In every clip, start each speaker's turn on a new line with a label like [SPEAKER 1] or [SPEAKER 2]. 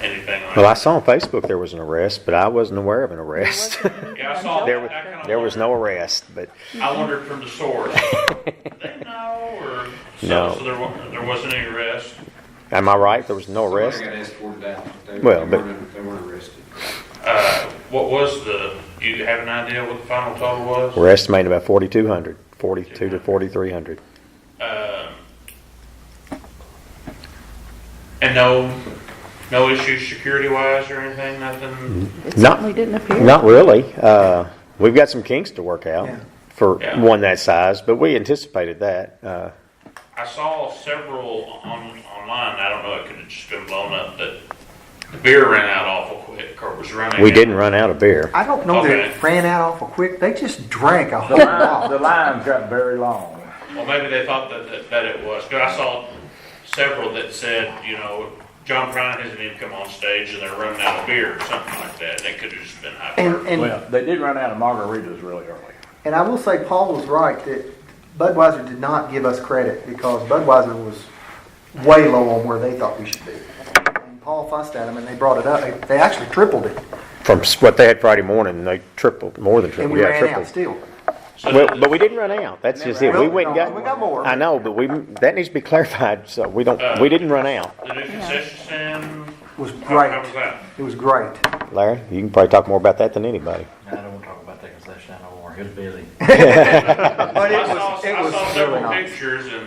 [SPEAKER 1] anything on it.
[SPEAKER 2] Well, I saw on Facebook there was an arrest, but I wasn't aware of an arrest.
[SPEAKER 1] Yeah, I saw
[SPEAKER 2] There
[SPEAKER 1] that.
[SPEAKER 2] was,
[SPEAKER 1] I kinda
[SPEAKER 2] there was no
[SPEAKER 1] wondered-
[SPEAKER 2] arrest, but
[SPEAKER 1] I wondered from the source. Did they know or? so-
[SPEAKER 2] No.
[SPEAKER 1] So there wa, there wasn't any arrest?
[SPEAKER 2] am I right? There was no
[SPEAKER 3] Somebody
[SPEAKER 2] arrest?
[SPEAKER 3] got escorted out. They-
[SPEAKER 2] Well,
[SPEAKER 3] they
[SPEAKER 2] but-
[SPEAKER 3] weren't- They weren't arrested.
[SPEAKER 1] Uh, what was the, do you have an idea what the final total was?
[SPEAKER 2] We're estimating about 4,200, 42 to 4,300.
[SPEAKER 1] Um, And no, no issues security wise or anything,
[SPEAKER 2] Mm-hmm.
[SPEAKER 1] nothing?
[SPEAKER 4] It
[SPEAKER 2] Not-
[SPEAKER 4] certainly didn't appear.
[SPEAKER 2] Not really. Uh, we've got some kinks to work out
[SPEAKER 3] Yeah.
[SPEAKER 2] for
[SPEAKER 1] Yeah.
[SPEAKER 2] one that size, but we anticipated that. Uh,
[SPEAKER 1] I saw several on, online, I don't know, it could have just been blown up, but the beer ran out awful quick, or was running.
[SPEAKER 2] we
[SPEAKER 1] out.
[SPEAKER 2] didn't run out of beer.
[SPEAKER 5] I don't know that
[SPEAKER 1] Okay.
[SPEAKER 5] it ran out awful quick. They just drank a
[SPEAKER 6] The
[SPEAKER 5] whole
[SPEAKER 6] line,
[SPEAKER 5] lot.
[SPEAKER 6] the lines got very long.
[SPEAKER 1] Well, maybe they thought that, that, that it was, but I saw several that said, you know, John Prine hasn't even come on stage and they're running out of beer or something like that, and it could have just been
[SPEAKER 5] And,
[SPEAKER 1] hyperbole.
[SPEAKER 5] and,
[SPEAKER 6] Well, they did run out of margaritas really early.
[SPEAKER 5] and I will say Paul was right that Budweiser did not give us credit because Budweiser was way low on where they thought we should be. And Paul fussed at them and they brought it up. They, they actually tripled it
[SPEAKER 2] From s- what they had Friday morning, they tripled, more than
[SPEAKER 5] and
[SPEAKER 2] tripled.
[SPEAKER 5] we
[SPEAKER 2] yeah,
[SPEAKER 5] ran
[SPEAKER 2] tripled.
[SPEAKER 5] out still.
[SPEAKER 1] So
[SPEAKER 2] Well, but we didn't run out. That's just it. We
[SPEAKER 5] Well,
[SPEAKER 2] went and
[SPEAKER 5] no,
[SPEAKER 2] got.
[SPEAKER 5] we got more.
[SPEAKER 2] I know, but we, that needs to be clarified, so we don't, we didn't run out.
[SPEAKER 1] The new concession stand,
[SPEAKER 5] It was
[SPEAKER 1] how, how was
[SPEAKER 5] great.
[SPEAKER 1] that?
[SPEAKER 5] It was great.
[SPEAKER 2] Larry, you can probably talk more about that than anybody.
[SPEAKER 7] I don't want to talk about that concession no more. It's busy.
[SPEAKER 5] But it
[SPEAKER 1] I saw,
[SPEAKER 5] was, it
[SPEAKER 1] I
[SPEAKER 5] was
[SPEAKER 1] saw
[SPEAKER 5] really
[SPEAKER 1] several
[SPEAKER 5] nice.
[SPEAKER 1] pictures and,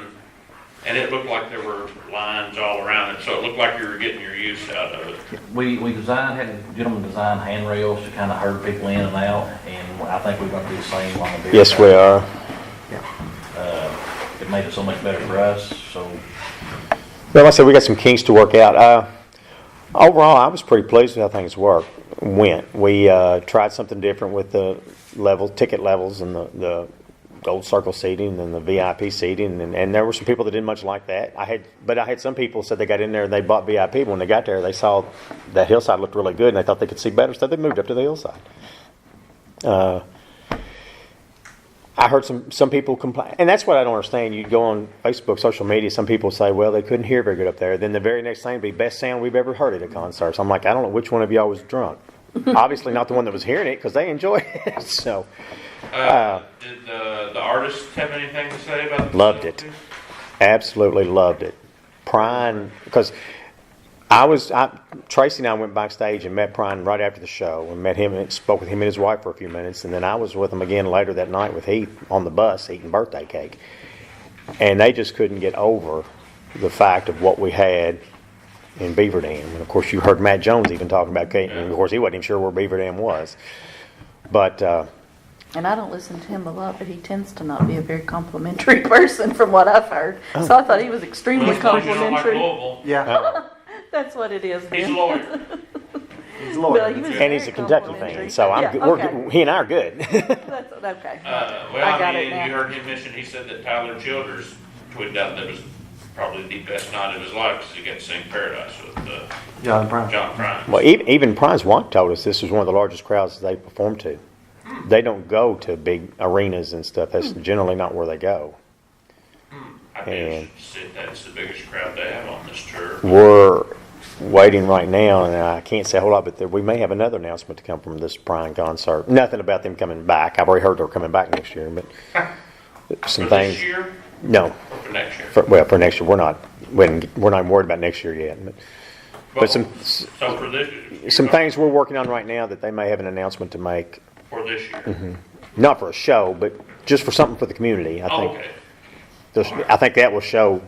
[SPEAKER 1] and it looked like there were lines all around it, so it looked like you were getting your use out of it.
[SPEAKER 7] We, we designed, had a gentleman design handrails to kind of herd people in and out, and I think we're going to do the same on the beer.
[SPEAKER 2] Yes, we are.
[SPEAKER 7] It made it so much better for us, so
[SPEAKER 2] Well, like I said, we got some kinks to work out. Uh, overall, I was pretty pleased with how things worked, went. We uh, tried something different with the level, ticket levels and the, the gold circle seating and the VIP seating. And, and there were some people that didn't much like that. I had, but I had some people said they got in there and they bought VIP. When they got there, they saw that hillside looked really good and they thought they could see better, so they moved up to the hillside. I heard some, some people complain, and that's what I don't understand. You go on Facebook, social media, some people say, well, they couldn't hear very good up there. Then the very next thing would be best sound we've ever heard at a concert. So I'm like, I don't know which one of y'all was drunk. Obviously, not the one that was hearing it because they enjoyed it. So
[SPEAKER 1] Uh, did the, the artists have anything to say about? the
[SPEAKER 2] Loved it.
[SPEAKER 1] facilities?
[SPEAKER 2] absolutely loved it. Prime, because I was, I, Tracy and I went backstage and met Prime right after the show and met him and spoke with him and his wife for a few minutes. And then I was with him again later that night with Heath on the bus eating birthday cake. and they just couldn't get over the fact of what we had in Beaver Dam. And of course, you heard Matt Jones even talking about Kate, and of course, he wasn't even sure where Beaver Dam was. But uh,
[SPEAKER 4] And I don't listen to him a lot, but he tends to not be a very complimentary person from what I've heard.
[SPEAKER 2] Oh.
[SPEAKER 4] So I thought he was
[SPEAKER 1] Well,
[SPEAKER 4] extremely
[SPEAKER 1] that's because you don't like
[SPEAKER 4] complimentary.
[SPEAKER 1] Louisville.
[SPEAKER 5] Yeah,
[SPEAKER 4] That's what it is.
[SPEAKER 1] He's a
[SPEAKER 4] then.
[SPEAKER 1] lawyer.
[SPEAKER 5] he's
[SPEAKER 4] Well, he
[SPEAKER 5] loyal.
[SPEAKER 4] was
[SPEAKER 2] and he's
[SPEAKER 4] very
[SPEAKER 2] a Kentucky fan,
[SPEAKER 4] complimentary.
[SPEAKER 2] so I'm
[SPEAKER 4] Yeah,
[SPEAKER 2] good. We're,
[SPEAKER 4] okay.
[SPEAKER 2] good. he and I are good.
[SPEAKER 4] That's, okay.
[SPEAKER 1] Uh,
[SPEAKER 4] I
[SPEAKER 1] well, I
[SPEAKER 4] got
[SPEAKER 1] mean,
[SPEAKER 4] it now.
[SPEAKER 1] you heard him mention, he said that Tyler Childers tweeted out that it was probably the best night of his life because he got to sing Paradise with, uh,
[SPEAKER 5] John Brown.
[SPEAKER 1] John Prine.
[SPEAKER 2] well, even, even Prize White told us this was one of the largest crowds they performed to. They don't go to big arenas and stuff. That's generally not where they go.
[SPEAKER 1] I
[SPEAKER 2] and-
[SPEAKER 1] guess said that's the biggest crowd they have on this tour.
[SPEAKER 2] We're waiting right now, and I can't say a whole lot, but there- we may have another announcement to come from this Prime concert. Nothing about them coming back. I've already heard they're coming back next year, but
[SPEAKER 1] For
[SPEAKER 2] some things.
[SPEAKER 1] this year
[SPEAKER 2] No,
[SPEAKER 1] or for next year?
[SPEAKER 2] for, well, for next year, we're not, we didn't- we're not worried about next year yet. But,
[SPEAKER 1] Well,
[SPEAKER 2] but some, s-
[SPEAKER 1] So for this.
[SPEAKER 2] some things we're working on right now that they may have an announcement to make,
[SPEAKER 1] For this
[SPEAKER 2] Mm-hmm,
[SPEAKER 1] year.
[SPEAKER 2] not for a show, but just for something for the community, I
[SPEAKER 1] Oh,
[SPEAKER 2] think.
[SPEAKER 1] okay.
[SPEAKER 2] There's- I think that will show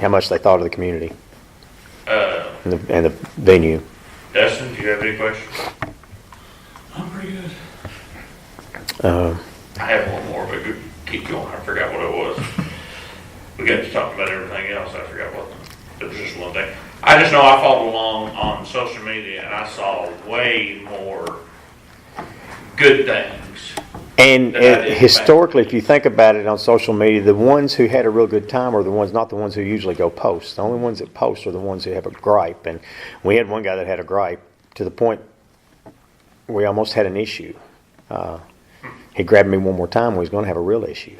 [SPEAKER 2] how much they thought of the community
[SPEAKER 1] Uh,
[SPEAKER 2] and the, and the venue.
[SPEAKER 1] Dustin, do you have any questions?
[SPEAKER 7] I'm pretty good.
[SPEAKER 2] Uh,
[SPEAKER 1] I have one more, but go- keep going. I forgot what it was. We got to talk about everything else. I forgot what, there was just one thing. I just know I followed along on social media and I saw way more good things.
[SPEAKER 2] And
[SPEAKER 1] That
[SPEAKER 2] uh,
[SPEAKER 1] idea.
[SPEAKER 2] historically, if you think about it on social media, the ones who had a real good time are the ones, not the ones who usually go post. The only ones that post are the ones who have a gripe. And we had one guy that had a gripe to the point we almost had an issue. Uh, he grabbed me one more time. We was going to have a real issue.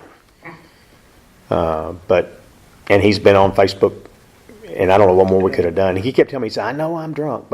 [SPEAKER 2] Uh, but and he's been on Facebook, and I don't know what more we could have done. He kept telling me, he said, "I know I'm drunk,